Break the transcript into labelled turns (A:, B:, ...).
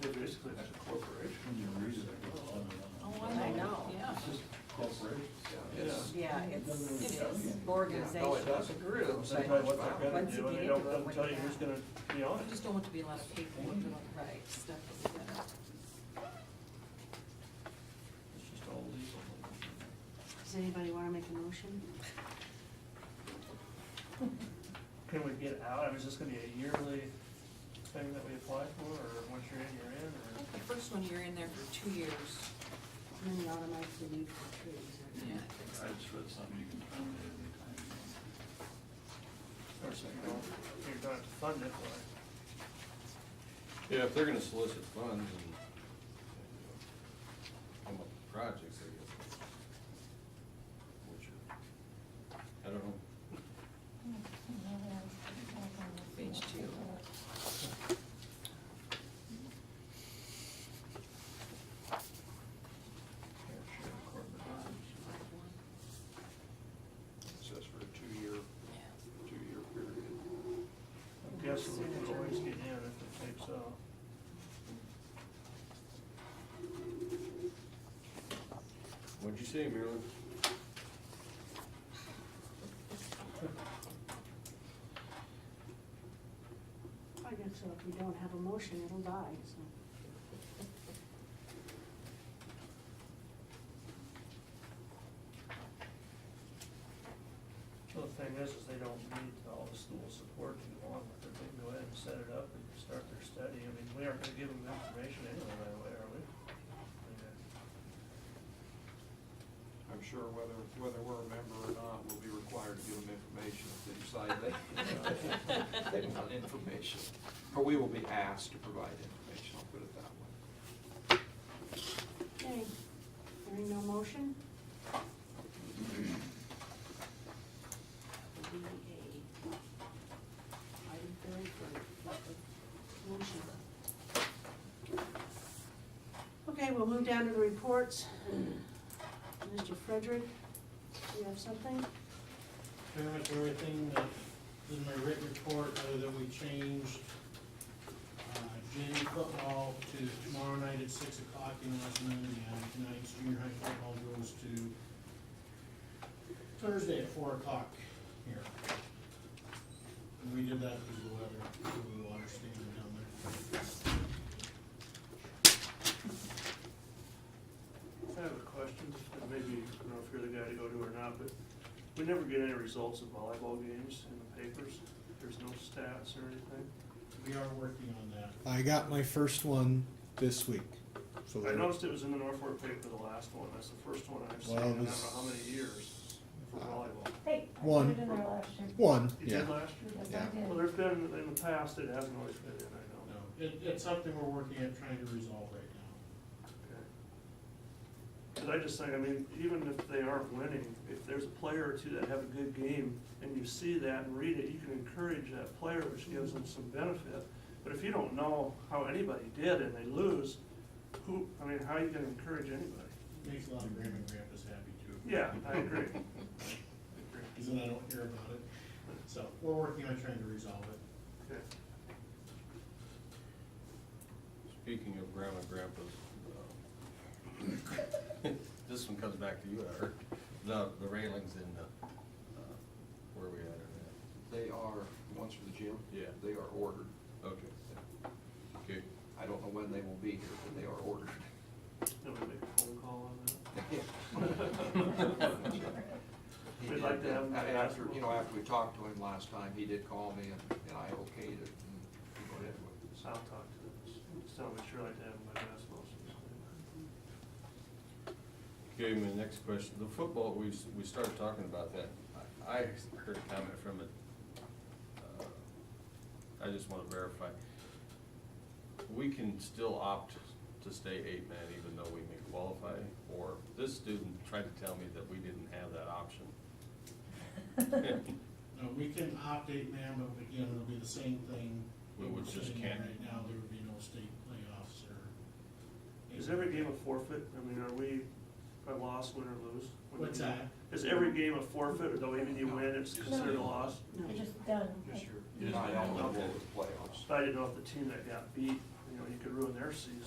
A: basically that's a corporation.
B: Oh, I know.
C: Yeah.
A: Yeah.
B: Yeah, it's,
C: It
B: it's
C: is.
B: organization.
D: No, it does agree with them.
A: That's why what they're gonna
B: Once
A: do, and they
B: again,
A: don't,
B: but
A: doesn't
B: when
A: tell you
B: you
A: who's
B: have-
A: gonna be on
C: I
A: it.
C: just don't want to be a lot of paperwork, and all that stuff that we gotta-
D: It's just all legal.
E: Does anybody wanna make a motion?
A: Can we get out, I mean, is this gonna be a yearly thing that we apply for, or once you're in, you're in,
C: I
A: or?
C: think the first one, you're in there for two years.
E: And then you automatically need for trees,
C: Yeah,
E: right?
C: I think so.
A: Or so you don't, you're gonna have to fund it, like,
F: Yeah, if they're gonna solicit funds and, you know, come up with projects, I guess. Which are, I don't know.
C: Page two.
D: It says for a two-year, two-year period.
A: I'm guessing we could always get in if it takes, uh,
F: What'd you say, Marilyn?
E: I guess so, if we don't have a motion, it'll die, so.
A: Well, The thing is, is they don't need all the school support too long, but they can go ahead and set it up and start their study. I mean, we aren't gonna give them the information anyway, by the way, are we? I mean, uh,
D: I'm sure whether, whether we're a member or not, we'll be required to give them information if they decide they, they want information. Or we will be asked to provide information, I'll put it that way.
E: Okay, hearing no motion? That would be a item very for lack of motion. Okay, we'll move down to the reports. Mr. Frederick, do you have something?
G: pretty much everything that in my written report, other than we changed uh, Jenny football to tomorrow night at six o'clock in West Monday, and tonight's junior high football goes to Thursday at four o'clock here. And we did that because of the weather, because of the water standing down there.
A: I have a question, and maybe, I don't know if you're the guy to go to or not, but we never get any results of volleyball games in the papers. There's no stats or anything.
G: We are working on that.
H: I got my first one this week. So
A: I noticed it was in the Norfolk paper, the last one. That's the first one I've seen
H: Well,
A: in I
H: it
A: don't know
H: was- Uh,
A: how many years for volleyball.
I: Hey, I put
H: One.
I: it in there last year.
H: one,
A: You
H: yeah.
A: did last year?
I: Yes,
H: Yeah.
I: I did.
A: Well, there's been, in the past, it hasn't always been in, I know.
G: No, it, it's something we're working at trying to resolve right now.
A: Cause I just think, I mean, even if they aren't winning, if there's a player or two that have a good game and you see that and read it, you can encourage that player, which gives them some benefit. But if you don't know how anybody did and they lose, who, I mean, how are you gonna encourage anybody?
G: Makes a lot of grandma and grandpas happy too.
A: Yeah, I agree.
G: Because then I don't hear about it. So we're working on trying to resolve it.
A: Okay.
F: Speaking of grandma and grandpas, um, this one comes back to you, I heard, the, the railings in the, uh, where we at or
D: They are, the ones for the gym?
F: Yeah.
D: They are ordered.
F: that. Okay, okay.
D: I don't know when they will be here, but they are ordered.
A: Then we make a phone call on that.
D: He
A: We'd like
D: did,
A: to have him
D: uh,
A: play
D: After,
A: basketball.
D: you know, after we talked to him last time, he did call me and, and I okayed it and we went ahead with it.
A: So I'll talk to them, just tell them we'd sure like to have them by basketball season.
F: Okay, my next question, the football, we, s- we started talking about that. I I heard a comment from it. uh, I just want to verify. We can still opt to stay eight man even though we may qualify, or this student tried to tell me that we didn't have that option.
G: No, we can opt eight man, but again, it'll be the same thing.
F: We would just
G: Sitting
F: can't-
G: Right now, there would be no state playoffs or.
A: Is every game a forfeit? I mean, are we a loss, win or lose?
G: What's that?
A: Is every game a forfeit, or though even you win, it's considered a loss?
E: No.
I: It's just done.
D: Just your,
F: Yes,
D: not
F: ma'am.
D: eligible
F: Okay.
D: with playoffs.
A: But I didn't know if the team that got beat, you know, you could ruin their season